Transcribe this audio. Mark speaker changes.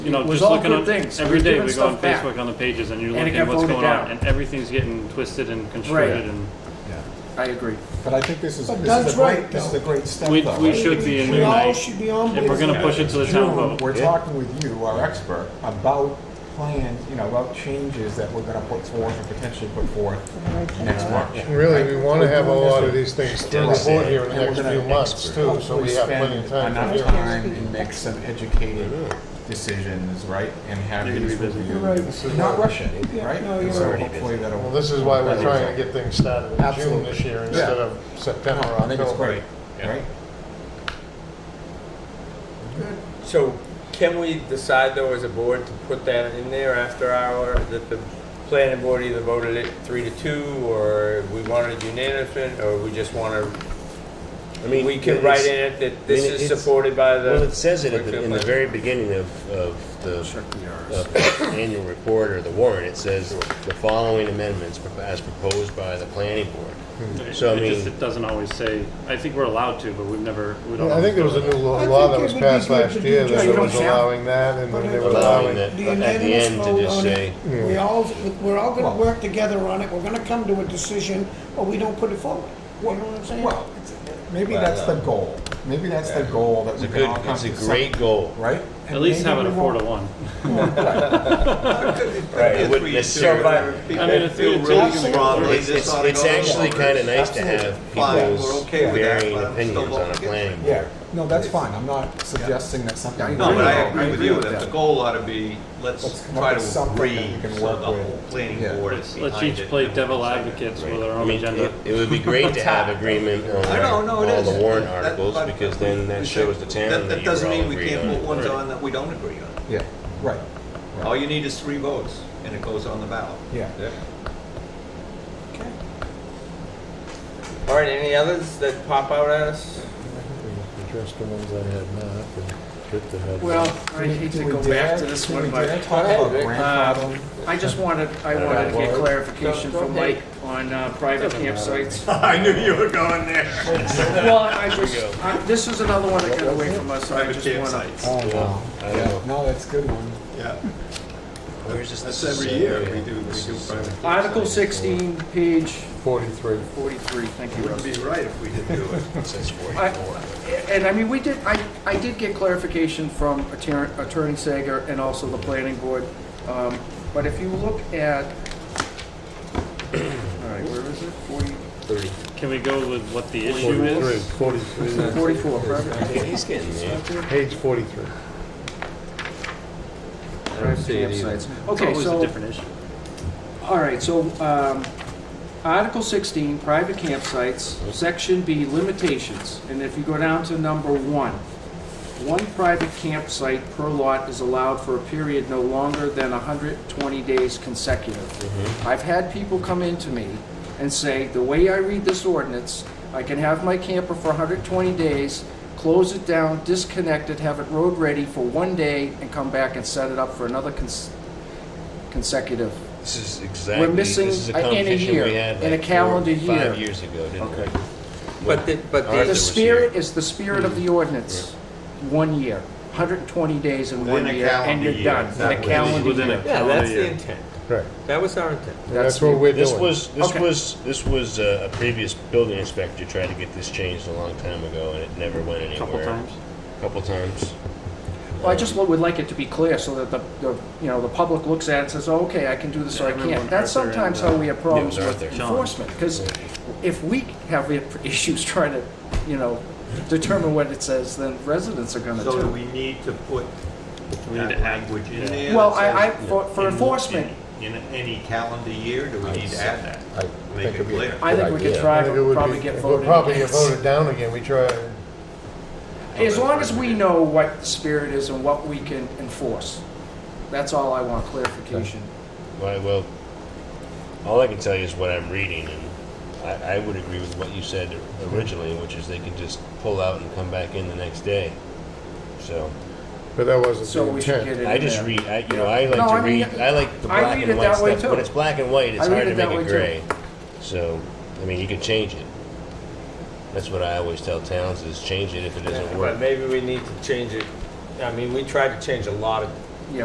Speaker 1: You know,
Speaker 2: It was
Speaker 1: just
Speaker 2: all
Speaker 1: looking
Speaker 2: good
Speaker 1: on,
Speaker 2: things. We
Speaker 1: every
Speaker 2: were
Speaker 1: day
Speaker 2: giving
Speaker 1: we go on
Speaker 2: stuff back.
Speaker 1: Facebook on the pages and you
Speaker 2: And
Speaker 1: look
Speaker 2: it got
Speaker 1: at what's
Speaker 2: voted
Speaker 1: going
Speaker 2: down.
Speaker 1: on and everything's getting twisted and constructed and
Speaker 3: Yeah.
Speaker 2: I agree.
Speaker 3: But I think this is, this
Speaker 4: But
Speaker 3: is
Speaker 4: Doug's
Speaker 3: a great,
Speaker 4: right,
Speaker 3: this is
Speaker 4: though.
Speaker 3: a great step
Speaker 1: We-
Speaker 3: though.
Speaker 1: we
Speaker 3: right?
Speaker 1: should be in
Speaker 4: We all
Speaker 1: unite.
Speaker 4: should be on board.
Speaker 1: if we're gonna push it to the town
Speaker 3: June,
Speaker 1: vote.
Speaker 3: We're talking with you, our expert, about plans, you know, about changes that we're gonna put forth and potentially put forth next March.
Speaker 5: Really, we want to have a lot of these things to report here in
Speaker 3: And
Speaker 5: the
Speaker 3: we're
Speaker 5: next
Speaker 3: gonna
Speaker 5: few months too, so
Speaker 3: hopefully
Speaker 5: we have plenty of
Speaker 3: spend
Speaker 5: time
Speaker 3: Enough
Speaker 5: for hearings.
Speaker 3: time and make some educated decisions, right, and have
Speaker 1: You're gonna
Speaker 3: these
Speaker 1: be busy.
Speaker 3: reviewed.
Speaker 4: You're right.
Speaker 5: This is
Speaker 3: Not
Speaker 5: why-
Speaker 3: rush it,
Speaker 4: Yeah,
Speaker 3: right?
Speaker 4: no,
Speaker 3: And
Speaker 4: you're
Speaker 3: so
Speaker 4: right.
Speaker 3: hopefully that'll-
Speaker 5: Well, this is why we're
Speaker 3: that'll
Speaker 5: trying
Speaker 3: result.
Speaker 5: to get things started in June
Speaker 3: Absolutely.
Speaker 5: this year
Speaker 3: Yeah.
Speaker 5: instead of September,
Speaker 3: No, I think it's
Speaker 5: October.
Speaker 3: great, right?
Speaker 6: So can we decide though as a board to put that in there after our, that the planning board either voted it three to two or we wanted it unanimous or we just want to,
Speaker 7: I mean,
Speaker 6: we can write in it that this
Speaker 7: I mean,
Speaker 6: is
Speaker 7: it's-
Speaker 6: supported by the.
Speaker 7: Well, it says it at the- in the
Speaker 6: Wakefield
Speaker 7: very beginning of, of the of the annual report or the warrant. It says the following amendments propo- as proposed by the planning board.
Speaker 8: Mm-hmm.
Speaker 1: it
Speaker 7: So, I
Speaker 1: it just,
Speaker 7: mean-
Speaker 1: it doesn't always say, I think we're allowed to, but we've never, we don't.
Speaker 5: Yeah, I think there was a new
Speaker 4: I
Speaker 5: law- law
Speaker 4: think
Speaker 5: that
Speaker 4: it
Speaker 5: was
Speaker 4: would be
Speaker 5: passed
Speaker 4: good
Speaker 5: last
Speaker 4: to
Speaker 5: year
Speaker 4: do
Speaker 5: that
Speaker 4: just-
Speaker 5: was allowing that and then they were
Speaker 7: Allowing
Speaker 5: allowing.
Speaker 7: that,
Speaker 4: The
Speaker 7: at the
Speaker 4: unanimous
Speaker 7: end
Speaker 4: vote
Speaker 7: to just
Speaker 4: on
Speaker 7: say, hmm.
Speaker 4: it. We all, we're all
Speaker 3: Well-
Speaker 4: gonna work together on it, we're gonna come to a decision, but we don't put it forward. You know what I'm saying?
Speaker 3: Well, it's- maybe that's
Speaker 8: uh,
Speaker 3: the goal. Maybe that's the goal that
Speaker 7: it's a
Speaker 3: we can all
Speaker 7: good,
Speaker 3: come
Speaker 7: it's a
Speaker 3: to
Speaker 7: great
Speaker 3: some-
Speaker 7: goal.
Speaker 3: right?
Speaker 1: At least have it a four to one.
Speaker 7: Right, it wouldn't necessarily-
Speaker 1: I mean, if
Speaker 8: Feel
Speaker 1: you-
Speaker 8: really
Speaker 4: Absolutely.
Speaker 8: strongly
Speaker 7: It's,
Speaker 8: this
Speaker 7: it's,
Speaker 8: ought to
Speaker 7: it's
Speaker 8: go
Speaker 7: actually
Speaker 8: over.
Speaker 7: kind of nice to
Speaker 3: Absolutely.
Speaker 7: have
Speaker 8: Fine, we're
Speaker 7: people's
Speaker 8: okay with that,
Speaker 7: varying
Speaker 8: but I'm still
Speaker 7: opinions on a
Speaker 8: voting
Speaker 7: planning board.
Speaker 3: Yeah, no, that's fine, I'm not suggesting that something.
Speaker 8: No, but I
Speaker 3: I
Speaker 8: agree with you, that the goal ought to be,
Speaker 3: Let's
Speaker 8: let's
Speaker 3: come up
Speaker 8: try
Speaker 3: with
Speaker 8: to
Speaker 3: something
Speaker 8: agree,
Speaker 3: that we can
Speaker 8: so
Speaker 3: work
Speaker 8: the
Speaker 3: with.
Speaker 8: whole planning
Speaker 3: Yeah.
Speaker 8: board is
Speaker 1: Let's
Speaker 8: behind
Speaker 1: let's
Speaker 8: it,
Speaker 1: each play
Speaker 8: and
Speaker 1: devil
Speaker 8: we'll decide it.
Speaker 1: advocates
Speaker 7: Right.
Speaker 1: with our
Speaker 7: I
Speaker 1: own
Speaker 7: mean,
Speaker 1: agenda.
Speaker 7: It it would be great to have agreement on
Speaker 8: I know, no, it
Speaker 7: all
Speaker 8: is.
Speaker 7: the warrant
Speaker 8: That-
Speaker 7: articles,
Speaker 8: but-
Speaker 7: because then that shows the town that
Speaker 8: That
Speaker 7: you were
Speaker 8: doesn't
Speaker 7: all
Speaker 8: mean we
Speaker 7: agreed
Speaker 8: can't
Speaker 7: on.
Speaker 8: put ones
Speaker 1: Right.
Speaker 8: on that we don't agree on.
Speaker 3: Yeah, right. right.
Speaker 8: All you need is three votes, and it goes on the ballot.
Speaker 3: Yeah.
Speaker 4: Okay.
Speaker 6: All right, any others that pop out at us?
Speaker 5: Address the ones I had not, and get the head.
Speaker 2: Well, I
Speaker 3: Do we-
Speaker 2: hate
Speaker 3: do
Speaker 2: to
Speaker 3: we
Speaker 2: go back
Speaker 3: dare-
Speaker 2: to this
Speaker 3: do
Speaker 2: one,
Speaker 3: we
Speaker 2: but.
Speaker 3: dare talk about
Speaker 2: uh,
Speaker 3: grandfathering? Oh,
Speaker 2: I just wanted, I
Speaker 7: don't
Speaker 2: wanted to
Speaker 7: know.
Speaker 2: get
Speaker 7: Well,
Speaker 2: clarification from
Speaker 6: okay.
Speaker 2: Mike on uh, private campsites.
Speaker 6: I knew you were going there.
Speaker 2: Well, I just, I- this is another one that got away from us, so I
Speaker 8: Private
Speaker 2: just wanna.
Speaker 8: campsites.
Speaker 3: Oh, no,
Speaker 7: I don't
Speaker 3: yeah,
Speaker 7: know.
Speaker 3: no, that's a good one.
Speaker 8: Yeah,
Speaker 7: Where's this?
Speaker 8: that's
Speaker 7: this is
Speaker 8: every
Speaker 7: so
Speaker 8: year
Speaker 7: weird.
Speaker 8: we do, we do private.
Speaker 2: Article sixteen, page
Speaker 5: Forty-three.
Speaker 2: forty-three, thank you,
Speaker 8: Wouldn't
Speaker 2: Russ.
Speaker 8: be right if we didn't do it.
Speaker 7: It says
Speaker 2: I-
Speaker 7: 44.
Speaker 2: And I mean, we did, I, I did get clarification from Attorney Attorney Sager and also the planning board. Um, But if you look at, all right, where is it? Forty,
Speaker 1: Can we go with what the issue is?
Speaker 5: Forty-three.
Speaker 2: forty-four, private
Speaker 7: Yeah, He's getting there.
Speaker 5: Page forty-three.
Speaker 2: private campsites.
Speaker 1: It's
Speaker 2: Okay,
Speaker 1: always a
Speaker 2: so,
Speaker 1: different issue.
Speaker 2: all right, so, um, Article sixteen, private campsites, section B, limitations. And if you go down to number one, one private campsite per lot is allowed for a period no longer than hundred twenty days consecutive. I've had people come in to me and say, the way I read this ordinance, I can have my camper for hundred twenty days, close it down, disconnect it, have it road ready for one day, and come back and set it up for another cons- consecutive
Speaker 7: This is exactly, this
Speaker 2: missing
Speaker 7: is a
Speaker 2: a- in a
Speaker 7: conversation
Speaker 2: year,
Speaker 7: we had
Speaker 2: in a
Speaker 7: like four,
Speaker 2: calendar year.
Speaker 7: five years ago, didn't we?
Speaker 2: Okay.
Speaker 6: But the, but
Speaker 7: Ours
Speaker 2: The
Speaker 6: the,
Speaker 7: is- was here.
Speaker 2: spirit is the spirit of the ordinance, one year, 120 days in one
Speaker 8: Within a
Speaker 2: year, and
Speaker 8: calendar
Speaker 2: you're
Speaker 8: year,
Speaker 2: done, in a
Speaker 8: exactly.
Speaker 2: calendar
Speaker 1: Within a
Speaker 2: year.
Speaker 6: yeah, that's
Speaker 1: calendar
Speaker 6: the
Speaker 1: year.
Speaker 6: intent.
Speaker 5: Right.
Speaker 6: That was our intent.
Speaker 5: And that's what we're doing.
Speaker 7: This was, this
Speaker 2: Okay.
Speaker 7: was, this was uh, a previous building inspector tried to get this changed a long time ago, and it never went anywhere.
Speaker 1: Couple times.
Speaker 7: Couple times.
Speaker 2: Well, I just would like it to be clear so that the, the, you know, the public looks at it and says, "Oh, okay, I can do this or I
Speaker 1: Everyone,
Speaker 2: can't. That's
Speaker 1: Arthur and,
Speaker 2: sometimes
Speaker 1: uh,
Speaker 2: how we have problems
Speaker 7: yeah, it was
Speaker 2: with
Speaker 7: Arthur.
Speaker 1: John.
Speaker 2: enforcement, because if we have i- issues trying to, you know, determine what it says, then residents are gonna
Speaker 8: So do
Speaker 2: too.
Speaker 8: we need to put
Speaker 1: We need
Speaker 8: that
Speaker 1: to add-
Speaker 8: language in
Speaker 1: yeah.
Speaker 8: there?
Speaker 2: Well,
Speaker 8: that
Speaker 2: I, I,
Speaker 8: says
Speaker 2: for, for
Speaker 8: in-
Speaker 2: enforcement,
Speaker 8: In in any calendar year, do we need to add that?
Speaker 3: I
Speaker 8: Make
Speaker 3: think
Speaker 8: it
Speaker 3: it'd be-
Speaker 8: clear.
Speaker 2: I think we could
Speaker 3: Yeah.
Speaker 2: try,
Speaker 5: I think it
Speaker 2: but
Speaker 5: would
Speaker 2: probably
Speaker 5: be-
Speaker 2: get
Speaker 5: we'll
Speaker 2: voted
Speaker 5: Probably get
Speaker 2: against.
Speaker 5: voted down again, we try, and-
Speaker 2: As long as we know what the spirit is and what we can enforce, that's all I want clarification.
Speaker 7: Why, well, all I can tell you is what I'm reading, and I, I would agree with what you said originally, which is they could just pull out and come back in the next day. So,
Speaker 5: but that wasn't
Speaker 2: So
Speaker 5: the
Speaker 2: we should get
Speaker 5: intent.
Speaker 2: it in
Speaker 7: I just
Speaker 2: there.
Speaker 7: read, I, you know, I like
Speaker 2: No, I
Speaker 7: to
Speaker 2: mean,
Speaker 7: read, I like the
Speaker 2: I
Speaker 7: black
Speaker 2: read
Speaker 7: and
Speaker 2: it
Speaker 7: white
Speaker 2: that way
Speaker 7: stuff. When
Speaker 2: too.
Speaker 7: it's black and white,
Speaker 2: I
Speaker 7: it's
Speaker 2: read
Speaker 7: hard
Speaker 2: it
Speaker 7: to
Speaker 2: that
Speaker 7: make
Speaker 2: way
Speaker 7: it
Speaker 2: too.
Speaker 7: gray. So, I mean, you can change it. That's what I always tell towns is change it if it doesn't
Speaker 6: But
Speaker 7: work.
Speaker 6: maybe we need to change it, I mean, we tried to change a lot of